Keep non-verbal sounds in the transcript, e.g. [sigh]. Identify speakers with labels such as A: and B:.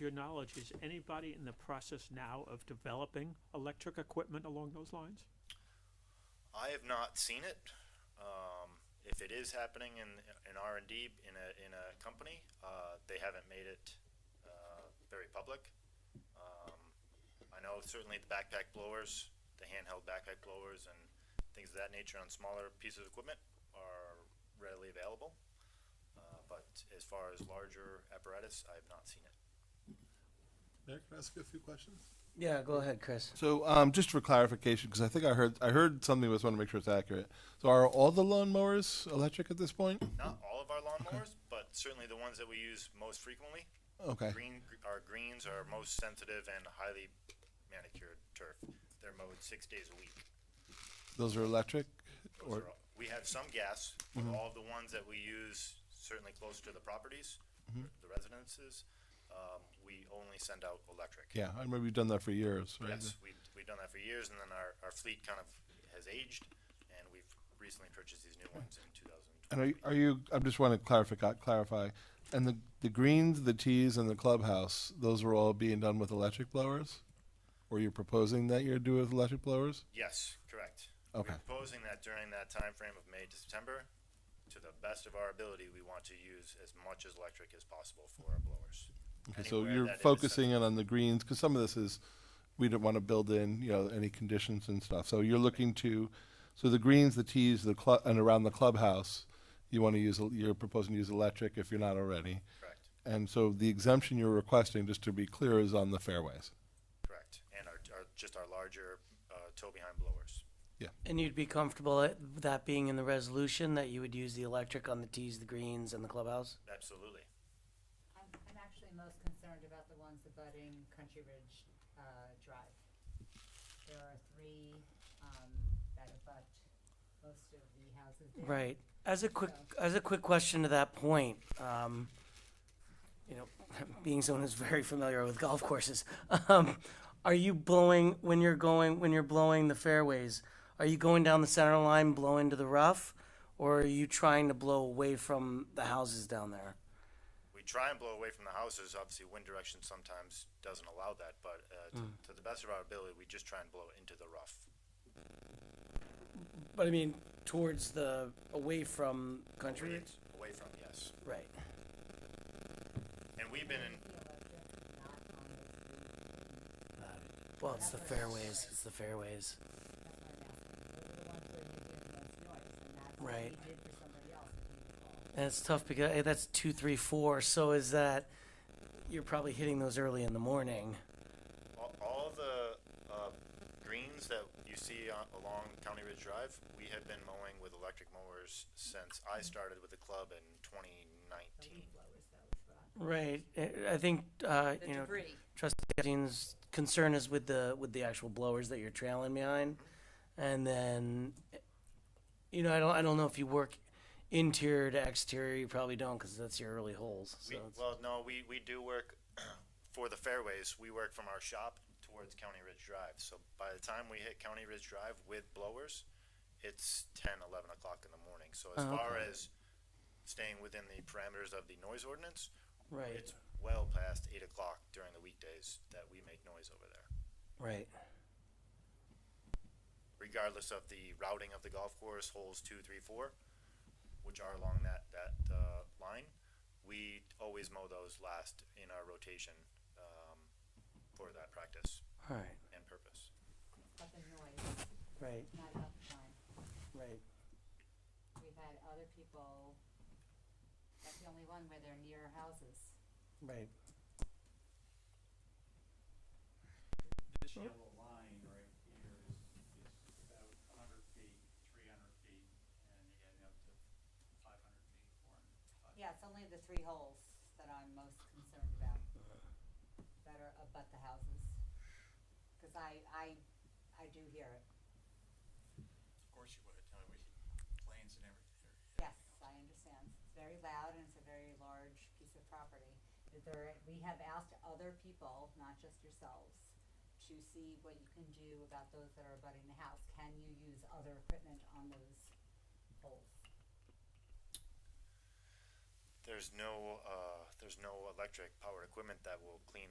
A: your knowledge, is anybody in the process now of developing electric equipment along those lines?
B: I have not seen it. Um, if it is happening in in R and D in a in a company, uh, they haven't made it uh, very public. Um, I know certainly the backpack blowers, the handheld backpack blowers, and things of that nature on smaller pieces of equipment are readily available. Uh, but as far as larger apparatus, I have not seen it.
C: Mayor, can I ask you a few questions?
D: Yeah, go ahead, Chris.
C: So, um, just for clarification, because I think I heard I heard something, but I just want to make sure it's accurate. So, are all the lawnmowers electric at this point?
B: Not all of our lawnmowers, but certainly the ones that we use most frequently
C: Okay.
B: Green, our greens are most sensitive and highly manicured turf. They're mowed six days a week.
C: Those are electric?
B: Those are
C: Or, Mm-hmm.
B: all- We have some gas, but all of the ones that we use, certainly close to the properties,
C: Mm-hmm.
B: the residences, um, we only send out electric.
C: yeah, I remember you've done that for years, right?
B: Yes, we've, we've done that for years, and then our, our fleet kind of has aged, and we've recently purchased these new ones in two thousand
C: And are, you-
B: twenty.
C: are you, I just want to clarify, clarify, and the, the greens, the tees, and the clubhouse, those were all being done with electric blowers? Or you're proposing that you're doing with electric blowers?
B: Yes, correct.
C: Okay.
B: We're proposing that during that time frame of May to September, to the best of our ability, we want to use as much as electric as possible for our blowers.
C: Okay, so
B: Anywhere
C: you're
B: that is-
C: focusing in on the greens, because some of this is, we don't want to build in, you know, any conditions and stuff. So you're looking to, so the greens, the tees, the club, and around the clubhouse, you want to use, el- you're proposing to use electric if you're not already.
B: Correct,
C: And so the exemption you're requesting, just to be clear, is on the fairways.
B: correct. And our, our, just our larger, uh, tow behind blowers.
D: And you'd be comfortable at that being in the resolution that you would use the electric on the tees, the greens, and the clubhouse?
B: Absolutely.
E: I'm, I'm actually most concerned about the ones abutting Country Ridge, uh, Drive. There are three, um, that abut most of the houses there.
D: Right. As a quick, as a quick question to that point, um, you know, [laughs] being someone who's very familiar with golf courses, um, are you blowing when you're going when you're blowing the fairways? Are you going down the center line, blowing to the rough, or are you trying to blow away from the houses down there?
B: We try and blow away from the houses. Obviously, wind direction sometimes doesn't allow that, but, uh, to, to the best of our ability, we just try and blow into the rough.
D: But I mean, towards the away from country.
B: Away from, yes.
D: Right.
B: And we've been in,
E: The electric, not on the street.
D: Well, it's the fairways. It's the fairways.
E: That's why I'm asking. The ones where you hear the most noise, and that's what
D: Right.
E: we did for somebody else.
D: And it's tough because eh, that's two, three, four. So is that you're probably hitting those early in the morning?
B: all, all the, uh, greens that you see on, along County Ridge Drive, we have been mowing with electric mowers since I started with the club in twenty
E: The
B: nineteen.
E: leaf blowers, though, is what I'm-
D: Right. Eh, I think uh, you know.
E: debris.
D: Trustee Epstein's concern is with the with the actual blowers that you're trailing behind, and then, you know, I don't I don't know if you work interior to exterior. You probably don't because that's your early holes. So
B: We,
D: it's-
B: well, no, we, we do work [clears throat] for the fairways. We work from our shop towards County Ridge Drive. So by the time we hit County Ridge Drive with blowers, it's 10, 11 o'clock in the morning. So as
D: Oh,
B: far
D: okay.
B: as staying within the parameters of the noise ordinance,
D: right,
B: it's well past 8 o'clock during the weekdays that we make noise over there,
D: right.
B: regardless of the routing of the golf course, holes two, three, four, which are along that, that uh, line. We always mow those last in our rotation um, for that practice.
D: All right,
B: and purpose.
E: But the noise,
D: right,
E: not about the time.
D: right.
E: We've had other people, that's the only one where they're near houses.
D: Right.
F: This yellow line right here is, is about a hundred feet, three hundred feet, and you get up to five hundred feet, four hundred.
E: Yeah, it's only the three holes that I'm most concerned about, that are abut the houses. Cause I, I, I do hear it,
F: Of course you would, uh, we should, planes and everything.
E: yes, I understand, it's very loud and it's a very large piece of property. Is There, we have asked other people, not just yourselves, to see what you can do about those that are abutting the house, can you use other equipment on those holes?
B: There's no, uh, there's no electric powered equipment that will clean